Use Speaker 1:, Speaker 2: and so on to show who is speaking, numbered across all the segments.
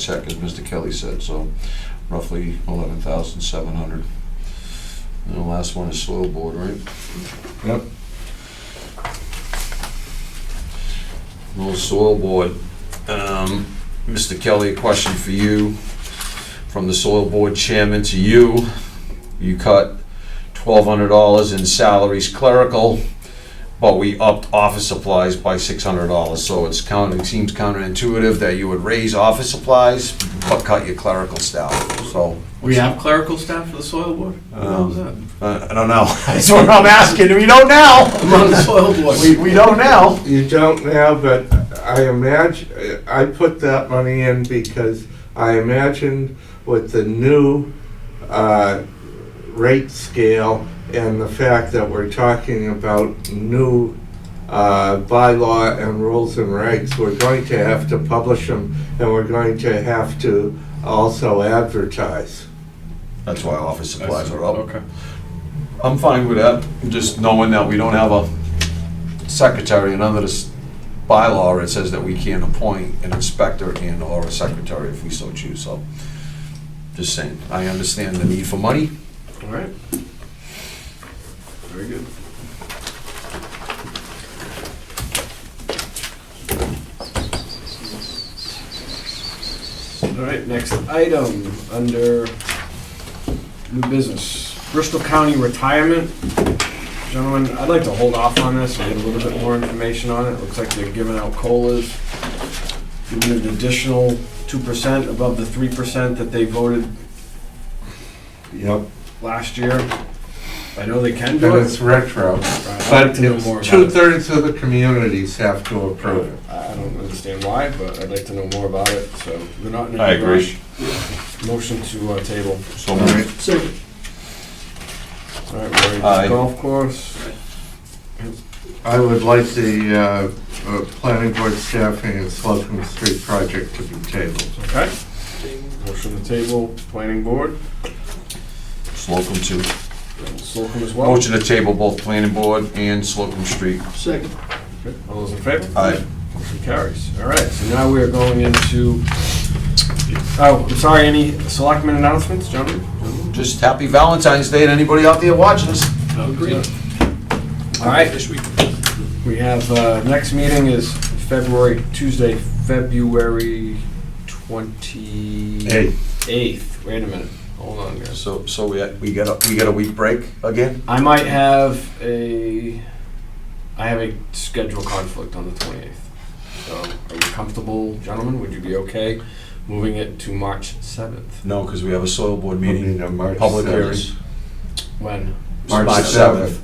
Speaker 1: check, as Mr. Kelly said, so roughly eleven thousand seven hundred. And the last one is soil board, right?
Speaker 2: Yep.
Speaker 1: Little soil board, um, Mr. Kelly, a question for you, from the soil board chairman to you. You cut twelve hundred dollars in salaries clerical, but we upped office supplies by six hundred dollars, so it's counter, it seems counterintuitive that you would raise office supplies, but cut your clerical staff, so.
Speaker 3: We have clerical staff for the soil board?
Speaker 1: Um,
Speaker 3: Who the hell's that?
Speaker 1: Uh, I don't know. That's what I'm asking. We don't now.
Speaker 3: I'm on the soil board.
Speaker 1: We, we don't now.
Speaker 2: You don't now, but I imagine, I put that money in because I imagined with the new uh, rate scale and the fact that we're talking about new uh, bylaw and rules and regs, we're going to have to publish them and we're going to have to also advertise.
Speaker 1: That's why office supplies are up.
Speaker 3: Okay.
Speaker 1: I'm fine with that. Just knowing that we don't have a secretary and under this bylaw, it says that we can't appoint an inspector and or a secretary if we so choose, so. Just saying, I understand the need for money.
Speaker 3: All right. Very good. All right, next item under new business. Bristol County Retirement. Gentlemen, I'd like to hold off on this and get a little bit more information on it. Looks like they're giving out COLAs, giving an additional 2% above the 3% that they voted
Speaker 2: Yep.
Speaker 3: last year. I know they can do
Speaker 2: And it's
Speaker 3: it.
Speaker 2: retro,
Speaker 3: I'd like
Speaker 2: but
Speaker 3: to know more
Speaker 2: it's
Speaker 3: about it.
Speaker 2: two-thirds of the communities have to approve it.
Speaker 3: I I don't understand why, but I'd like to know more about it, so we're not in a
Speaker 1: I
Speaker 3: big
Speaker 1: agree.
Speaker 3: rush. Motion to uh, table.
Speaker 1: So
Speaker 2: All right.
Speaker 3: All right, we're ready
Speaker 1: Aye.
Speaker 3: to golf course.
Speaker 2: I would like the uh, uh, planning board staffing and Slocum Street project to be tabled.
Speaker 3: Okay. Motion to table, planning board,
Speaker 1: Slocum too.
Speaker 3: Slocum as well.
Speaker 1: Motion to table both planning board and Slocum Street. Uh,
Speaker 4: Second.
Speaker 3: Okay, All those in favor?
Speaker 1: Aye.
Speaker 3: Motion carries. All right, so now we are going into, oh, I'm sorry, any selectmen announcements, gentlemen?
Speaker 1: Just happy Valentine's Day to anybody out there watching us.
Speaker 4: Agreed.
Speaker 3: All right,
Speaker 4: This week.
Speaker 3: We have, uh, next meeting is February, Tuesday, February twenty
Speaker 2: Hey,
Speaker 3: eighth. Wait a minute, hold on, guys.
Speaker 1: So, so we, we got a, we got a week break again?
Speaker 3: I might have a, I have a schedule conflict on the twenty-eighth. So are you comfortable, gentlemen? Would you be okay moving it to March seventh?
Speaker 1: No, because we have a soil board
Speaker 2: meeting
Speaker 1: meeting,
Speaker 2: on uh, March
Speaker 1: public hearing.
Speaker 2: 7th.
Speaker 3: When?
Speaker 1: March
Speaker 2: March
Speaker 1: 7th.
Speaker 2: 7th.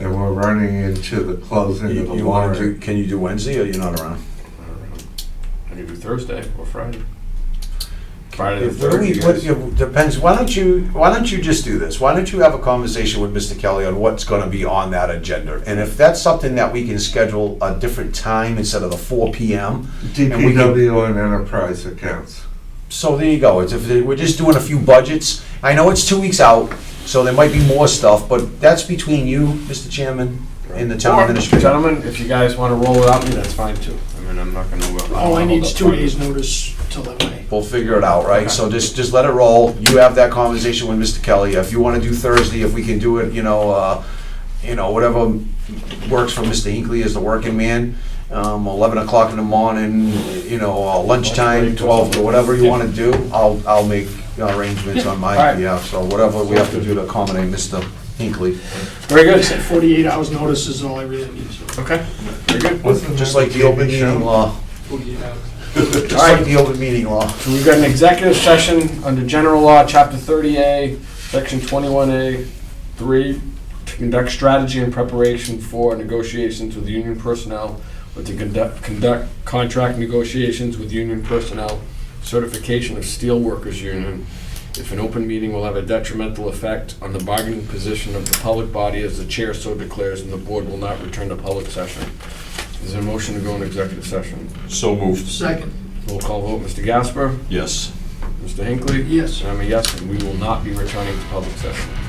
Speaker 2: And we're running into the closing
Speaker 1: You
Speaker 2: of the
Speaker 1: you wanna do,
Speaker 2: warrant.
Speaker 1: can you do Wednesday or you're not around?
Speaker 3: I could do Thursday or Friday. Friday the
Speaker 1: What do
Speaker 3: third,
Speaker 1: we-
Speaker 3: you
Speaker 1: what-
Speaker 3: guys.
Speaker 1: yeah, Depends, why don't you, why don't you just do this? Why don't you have a conversation with Mr. Kelly on what's gonna be on that agenda? And if that's something that we can schedule a different time instead of the four PM, and we can-
Speaker 2: DPW and enterprise accounts.
Speaker 1: so there you go. It's, if, they- we're just doing a few budgets. I know it's two weeks out, so there might be more stuff, but that's between you, Mr. Chairman, and the town
Speaker 3: Or,
Speaker 1: administrator.
Speaker 3: Gentlemen, if you guys wanna roll without me, that's fine too. I mean, I'm not gonna. I'm not
Speaker 4: All Oh, I
Speaker 3: gonna
Speaker 4: need is
Speaker 3: hold
Speaker 4: two
Speaker 3: up on
Speaker 4: days'
Speaker 3: it.
Speaker 4: notice till that way.
Speaker 1: We'll figure it out, right? So just, just let it roll. You have that conversation with Mr. Kelly. If you wanna do Thursday, if we can do it, you know, uh, you know, whatever works for Mr. Hinckley as the working man. Um, eleven o'clock in the morning, you know, uh, lunchtime, twelve, or whatever you wanna do, I'll, I'll make arrangements on my
Speaker 3: Alright.
Speaker 1: behalf. So whatever we have to do to accommodate Mr. Hinckley.
Speaker 3: Very
Speaker 4: Like I
Speaker 3: good.
Speaker 4: said, 48 hours' notice is all I really need, so
Speaker 3: Okay, very good.
Speaker 1: Just like the open meeting law,
Speaker 4: 48 hours.
Speaker 1: just
Speaker 3: Alright.
Speaker 1: like the open meeting law.
Speaker 3: So we've got an executive session under general law, chapter thirty A, section twenty-one A, three, to conduct strategy and preparation for negotiations with union personnel, or to conduct, conduct contract negotiations with union personnel, certification of steel workers union. If an open meeting will have a detrimental effect on the bargaining position of the public body as the chair so declares, and the board will not return to public session. Is there a motion to go into executive session?
Speaker 1: So moved.
Speaker 4: Second,
Speaker 3: Roll call vote, Mr. Gasper?
Speaker 1: Yes.
Speaker 3: Mr. Hinckley?
Speaker 4: yes.
Speaker 3: I'm a yes, and we will not be returning to public session.